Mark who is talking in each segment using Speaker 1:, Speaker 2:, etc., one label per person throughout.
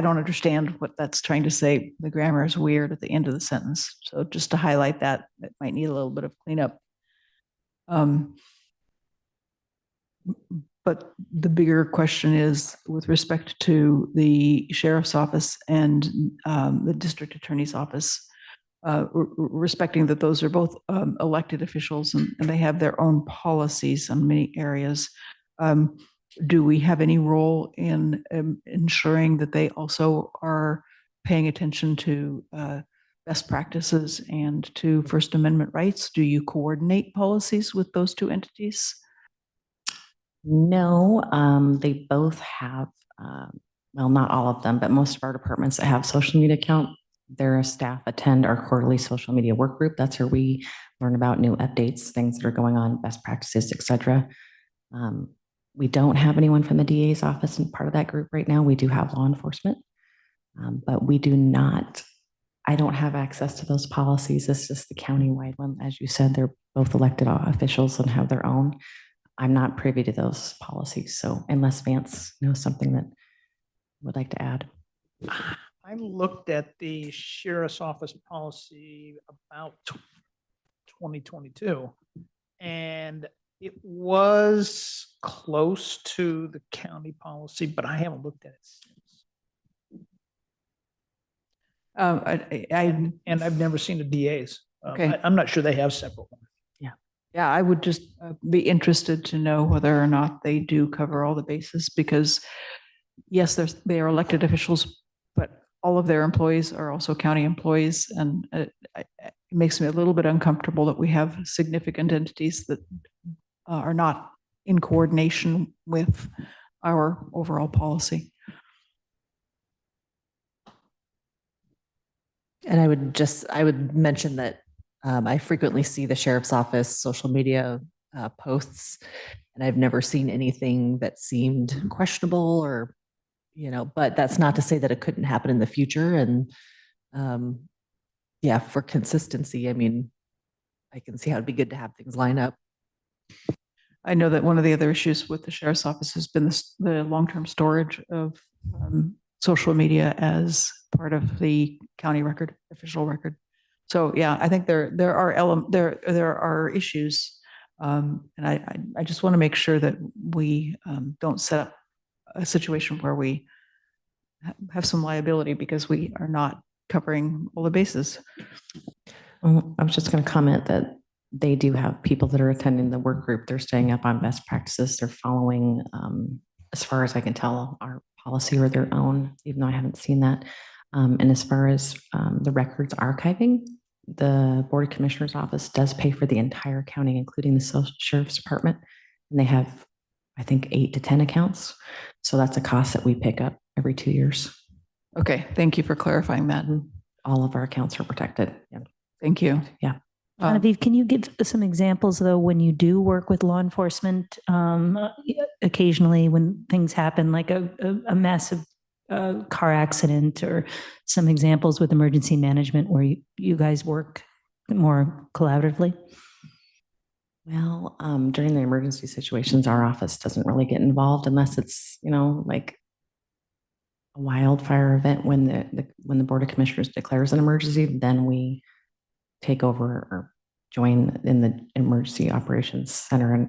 Speaker 1: I don't understand what that's trying to say. The grammar is weird at the end of the sentence. So just to highlight that, it might need a little bit of cleanup. Um, But the bigger question is with respect to the sheriff's office and um, the district attorney's office, uh, r- r- respecting that those are both um, elected officials and and they have their own policies on many areas. Um, do we have any role in um, ensuring that they also are paying attention to uh, best practices and to First Amendment rights? Do you coordinate policies with those two entities?
Speaker 2: No, um, they both have, um, well, not all of them, but most of our departments that have social media account, their staff attend our quarterly social media work group. That's where we learn about new updates, things that are going on, best practices, et cetera. Um, we don't have anyone from the DA's office and part of that group right now. We do have law enforcement. Um, but we do not, I don't have access to those policies. This is the countywide one. As you said, they're both elected officials and have their own. I'm not privy to those policies, so unless Vance knows something that would like to add.
Speaker 3: I looked at the sheriff's office policy about twenty twenty-two. And it was close to the county policy, but I haven't looked at it since.
Speaker 1: Uh, I, I,
Speaker 3: And I've never seen the DA's. Um,
Speaker 1: Okay.
Speaker 3: I- I'm not sure they have separate ones.
Speaker 1: yeah, I would just uh, be interested to know whether or not they do cover all the bases because yes, there's, they are elected officials, but all of their employees are also county employees. And uh, I- I- it makes me a little bit uncomfortable that we have significant entities that uh, are not in coordination with our overall policy.
Speaker 4: And I would just, I would mention that um, I frequently see the sheriff's office social media uh, posts, and I've never seen anything that seemed questionable or, you know, but that's not to say that it couldn't happen in the future. And um, yeah, for consistency, I mean, I can see how it'd be good to have things line up.
Speaker 1: I know that one of the other issues with the sheriff's office has been the s- the long-term storage of um, social media as part of the county record, official record. So yeah, I think there, there are element, there, there are issues. Um, And I, I- I just want to make sure that we um, don't set up a situation where we ha- have some liability because we are not covering all the bases.
Speaker 2: Um, I was just going to comment that they do have people that are attending the work group. They're staying up on best practices. They're following, um, as far as I can tell, our policy or their own, even though I haven't seen that. Um, and as far as, um, the records archiving, the Board of Commissioners Office does pay for the entire county, including the Social Sheriff's Department. And they have, I think, eight to 10 accounts. So that's a cost that we pick up every two years.
Speaker 1: Okay, thank you for clarifying that.
Speaker 2: And all of our accounts are protected. Yeah.
Speaker 1: Thank you.
Speaker 2: Yeah.
Speaker 1: Um,
Speaker 5: Genevieve, can you give some examples, though, when you do work with law enforcement? um, Occasionally, when things happen, like a, a- a massive uh, car accident or some examples with emergency management where you, you guys work more collaboratively?
Speaker 2: Well, um, during the emergency situations, our office doesn't really get involved unless it's, you know, like a wildfire event when the, the, when the Board of Commissioners declares an emergency, then we take over or join in the Emergency Operations Center and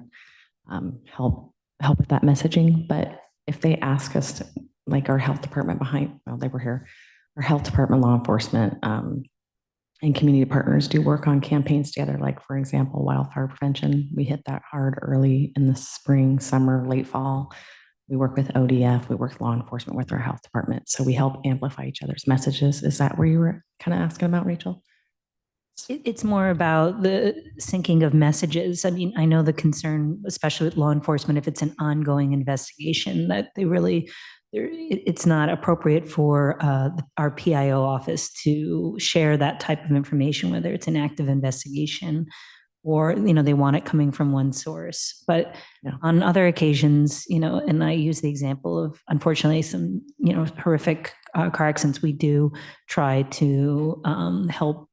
Speaker 2: um, help, help with that messaging. But if they ask us, to- like our health department behind, well, they were here, our health department, law enforcement, um, and community partners do work on campaigns together, like for example, wildfire prevention. We hit that hard early in the spring, summer, late fall. We work with ODF, we work with law enforcement, with our health department. So we help amplify each other's messages. Is that where you were kind of asking about, Rachel?
Speaker 5: It, it's more about the syncing of messages. I mean, I know the concern, especially with law enforcement, if it's an ongoing investigation, that they really, there- it, it's not appropriate for uh, our PIO office to share that type of information, whether it's an active investigation or, you know, they want it coming from one source. But
Speaker 2: Yeah.
Speaker 5: on other occasions, you know, and I use the example of unfortunately some, you know, horrific uh, car accidents, we do try to um, help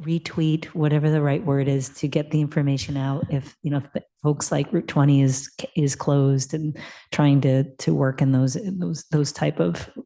Speaker 5: retweet, whatever the right word is, to get the information out if, you know, if the folks like Route 20 is, is closed and trying to, to work in those, in those, those type of